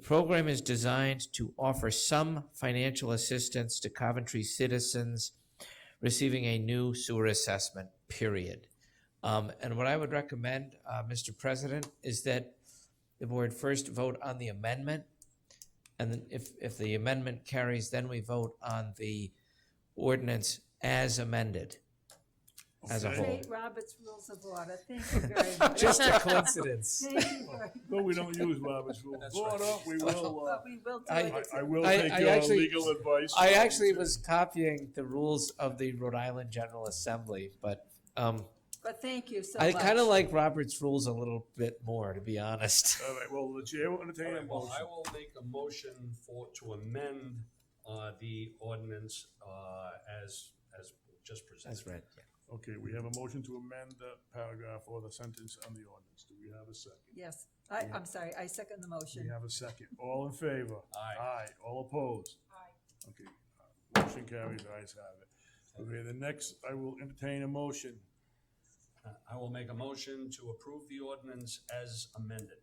program is designed to offer some financial assistance to Coventry citizens receiving a new sewer assessment, period. Um, And what I would recommend, uh, Mr. President, is that the board first vote on the amendment. And then if, if the amendment carries, then we vote on the ordinance as amended, as a whole. State Robert's Rules of Order, thank you very much. Just a coincidence. Thank you very much. No, we don't use Robert's Rules of Order, we will, uh, But we will do I- it. I will I- take I your actually- legal advice. I actually was copying the rules of the Rhode Island General Assembly, but um, But thank you so I much. kind of like Robert's rules a little bit more, to be honest. All right, well, the chair will All entertain a right, well, I motion. will make a motion for, to amend, uh, the ordinance, uh, as, as just presented. That's right. Okay, we have a motion to amend the paragraph or the sentence on the ordinance. Do we have a second? Yes, I, I'm sorry, I second the We motion. have a second. All in favor? Aye. Aye. All opposed? Aye. Okay, uh, motion carries, ayes have it. Okay, the next, I will entertain a motion. Uh, I will make a motion to approve the ordinance as amended.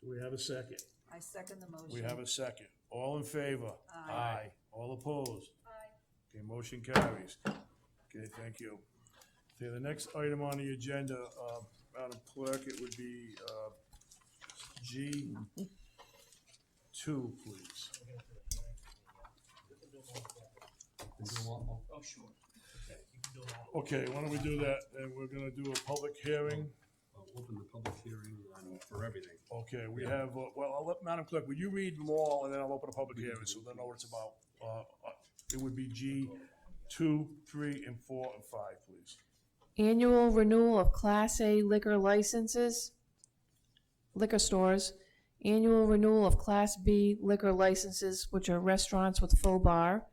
Do we have a second? I second the motion. We have a second. All in favor? Aye. All opposed? Aye. Okay, motion carries. Okay, thank you. Okay, the next item on the agenda, uh, Madam Clerk, it would be, uh, G two, please. Oh, sure. Okay, why don't we do that, and we're gonna do a public hearing. Open the public hearing on, for everything. Okay, we have, uh, well, I'll let, Madam Clerk, will you read them all, and then I'll open a public hearing, so they'll know what it's about. Uh, uh, it would be G two, three, and four, and five, please. Annual renewal of Class A liquor licenses, liquor stores. Annual renewal of Class B liquor licenses, which are restaurants with full bar.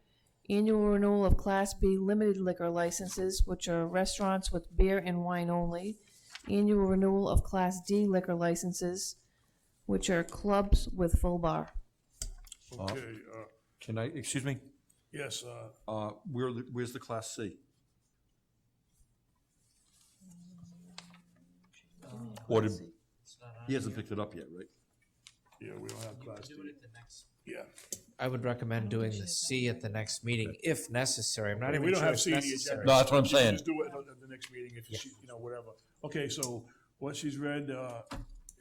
Annual renewal of Class B limited liquor licenses, which are restaurants with beer and wine only. Annual renewal of Class D liquor licenses, which are clubs with full bar. Okay, uh, Can I, excuse me, yes, uh, uh, where, where's the Class C? Or did, he hasn't picked it up yet, right? yeah, we don't have class D. Yeah. I would recommend doing the C at the next meeting if necessary. I'm not Yeah, even we don't sure have it's C in the necessary. agenda. No, that's what I'm saying. Just do it at the next meeting if she, you know, whatever. Okay, so what she's read, uh,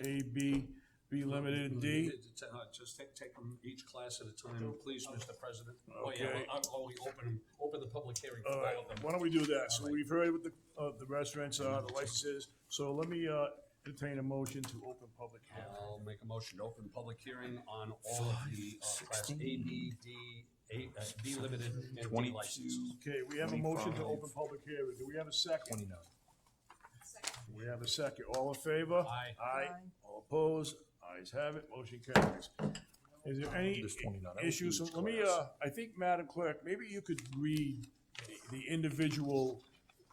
A, B, B limited, D. Uh, Just take, take them each class at a time, please, Mr. President. Oh, yeah, Okay. I'll, I'll open, 'em- open the public hearing for All right, all of them. uh, why don't we do that? So we've heard what the, uh, the restaurants are, the licenses. So let me, uh, entertain a motion to open public hearing. I'll make a motion to open public hearing on all of the uh, Class A, B, D, A, uh, B limited and D licenses. Okay, we have a motion to open public hearing. Do we have a second? We have a second. All in favor? Aye. Aye. Aye. All opposed? Ayes have it. Motion carries. Is there any There's 29. I would issues? do each Let me, class. uh, I think, Madam Clerk, maybe you could read the- the individual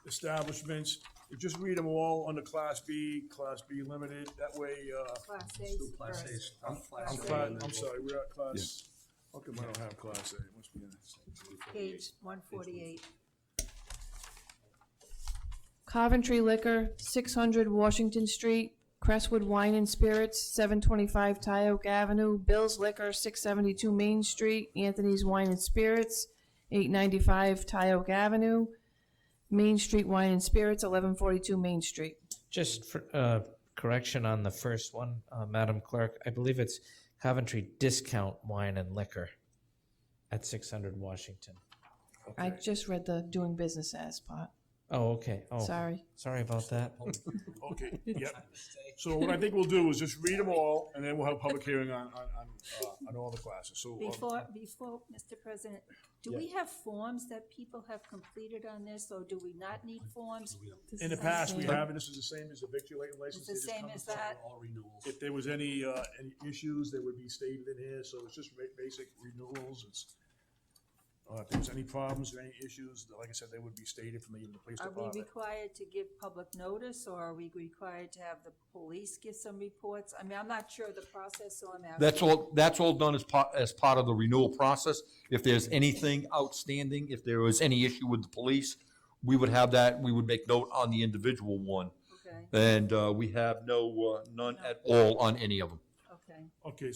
establishments. You Just read them all under Class B, Class B Limited. That way, uh, Class A's Class first. A's. I'm Class cla- A, I'm sorry, we're at Class, how come I don't have Class A? It must be in it. Page one forty-eight. Coventry Liquor, six hundred Washington Street, Crestwood Wine and Spirits, seven twenty-five Tyoke Avenue, Bill's Liquor, six seventy-two Main Street, Anthony's Wine and Spirits, eight ninety-five Tyoke Avenue, Main Street Wine and Spirits, eleven forty-two Main Street. Just for uh, correction on the first one, uh, Madam Clerk, I believe it's Coventry Discount Wine and Liquor at 600 Washington. I just read the doing business as part. Oh, okay. Oh, Sorry. Sorry about that. Okay, yep. So what I think we'll do is just read them all, and then we'll have a public hearing on, on, on, uh, on all the classes. So, uh, Before, before, Mr. President, do we have forms that people have completed on this, or do we not need forms? in the past, we have, and this is the same as the victulating It's license. the they just same come as to- that? All renewals. If there was any, uh, any issues, they would be stated in here, so it's just ba- basic renewals, it's, uh, if there's any problems or any issues, like I said, they would be stated from the, the police Are we department. required to give public notice, or are we required to have the police give some reports? I mean, I'm not sure of the process, so I'm asking. That's all, that's all done as part, as part of the renewal process. If there's anything outstanding, if there was any issue with the police, we would have that, we would make note on the individual one. Okay, And, uh, we have no, uh, none at all on any of them. okay. Okay,